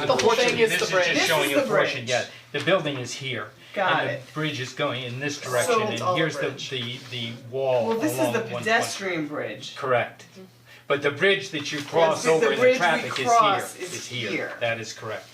the the whole portion. thing is the This is bridge. just showing This a is the portion, bridge. yeah, the building is here. Got And the it. bridge is going in this direction, it's and all a here's the bridge. the the wall Well, this is along the one- one- pedestrian bridge. Correct. But the bridge that you cross Yes, the over in the bridge we traffic is here, cross is is here, here. that is correct.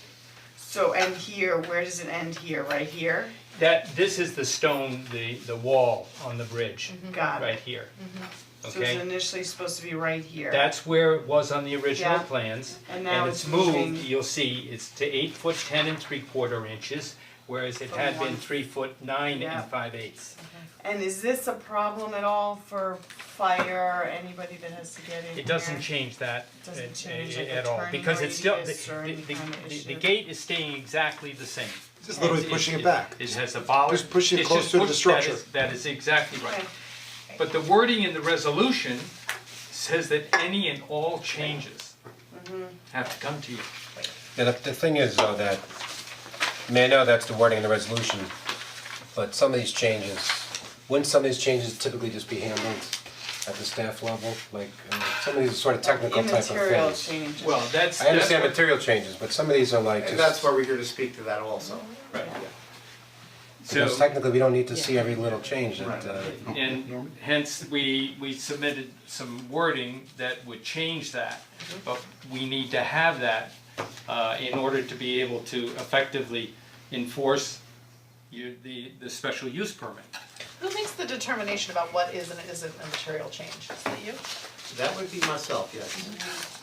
So, and here, where does it end here, right here? That, this is the stone, the the wall on the bridge, Got right it. here, okay? Mm-hmm. So it's initially supposed to be right here. That's where it was on the original Yeah. plans. And now it's it's moved, moving. you'll see, it's to eight foot ten and three quarter inches, whereas it From had been one- three foot nine Yeah. and five eighths. And is this a problem at all for fire, or anybody that has to get in It doesn't here? change that uh, Doesn't change, like, uh, at the all, turning because it's still, the radius or the any the kind the- of the issue. gate is staying exactly the same. Just literally It's- pushing it it's- back. It has a bollard. Just pushing it It's just closer to the push- that structure. is- That is exactly right. Okay. But the wording in the resolution says that any and all changes Mm-hmm. have to come to you. Yeah, the, the thing is though that, I mean, I know that's the wording in the resolution, but some of these changes, wouldn't some of these changes typically just be handled at the staff level? Like, uh, some of these are sort of technical type of things. Immaterial changes. Well, that's I understand material changes, but some of these are like And that's just, why we're here to speak to that also. Right. because So, technically, we don't need to see every little change that, uh, and hence, we, we submitted some wording that would change that, but we need to have that uh, in order to be able to effectively enforce your, the, the special use permit. Who makes the determination about what is and isn't a material change? Is that you? That would be myself, yes.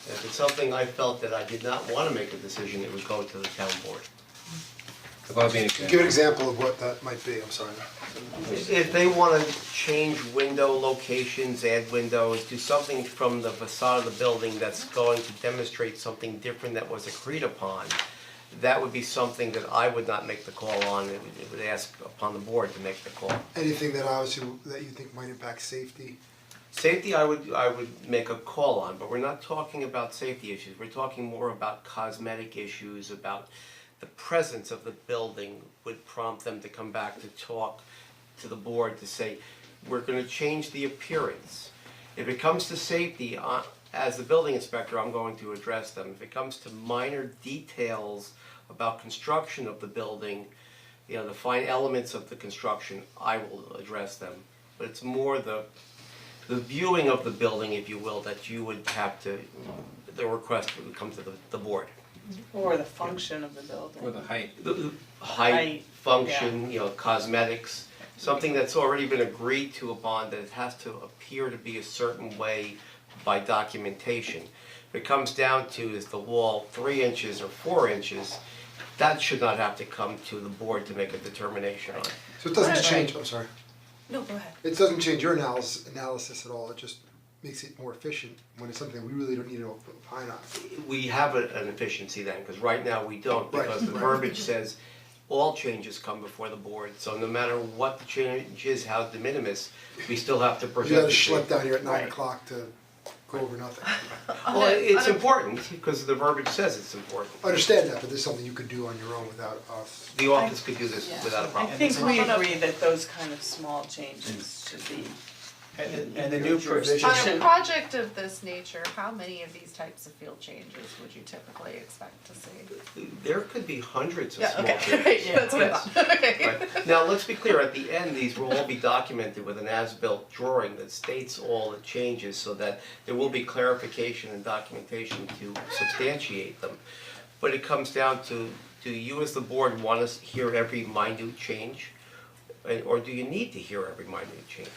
If it's something I felt that I did not wanna make a decision, it would go to the town board. the well-being exam. Give an example of what that might be, I'm sorry. If they wanna change window locations, add windows, do something from the facade of the building that's going to demonstrate something different that was agreed upon, that would be something that I would not make the call on, it would, it would ask upon the board to make the call. Anything that obviously, that you think might impact safety, Safety, I would, I would make a call on, but we're not talking about safety issues, we're talking more about cosmetic issues, about the presence of the building would prompt them to come back to talk to the board to say, we're gonna change the appearance. If it comes to safety, I- as the building inspector, I'm going to address them. If it comes to minor details about construction of the building, you know, the fine elements of the construction, I will address them. But it's more the, the viewing of the building, if you will, that you would have to, the request would come to the, the board. Or the function of the building. Or the height. The- the Height, Height, function, you know, cosmetics, something that's already been agreed to upon, that it has to appear to be a certain way by documentation. If It comes down to is the wall three inches or four inches, that should not have to come to the board to make a determination on. so it doesn't change, I'm sorry. No, go ahead. It doesn't change your analysis, analysis at all, it just makes it more efficient when it's something we really don't need to opine on. We have a- an efficiency then, because right now we don't, Right, because the right. verbiage says all changes come before the board, so no matter what the change is, how de minimis, we still have to You present gotta the change. schlep down here at nine Right. o'clock to go over nothing. Well, it's important, because the verbiage says it's important. I Understand that, but there's something you could do on your own without us. The office could do this without a I problem. think we agree that those kind of small changes should be. And and the new provision, On a Should- project of this nature, how many of these types of field changes would you typically expect to see? There could be hundreds of Yeah, small okay, changes. great, that's what I thought, okay. Right. Now, let's be clear, at the end, these will all be documented with an as-built drawing that states all the changes so that there will be clarification and documentation to substantiate them. But it comes down to, do you as the board want us to hear every minute change? And- Or do you need to hear every minute change?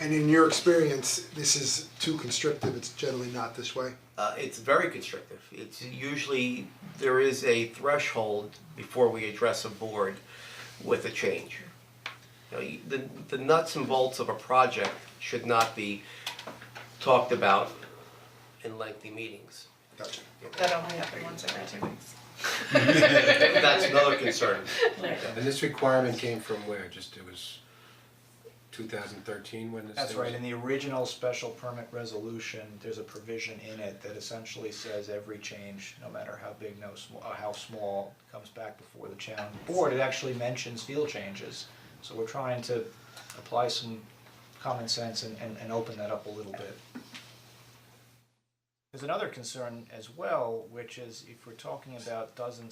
And in your experience, this is too constrictive, it's generally not this way. Uh, it's very constrictive. It's usually, there is a threshold before we address a board with a change. You know, you- the, the nuts and bolts of a project should not be talked about in lengthy meetings. Gotcha. That only happened once every two weeks. That's another concern. And this requirement came from where? Just, it was two thousand thirteen when this that's thing was- right, in the original special permit resolution, there's a provision in it that essentially says every change, no matter how big, no small, how small, comes back before the town board, it actually mentions field changes. So we're trying to apply some common sense and and and open that up a little bit. There's another concern as well, which is if we're talking about dozens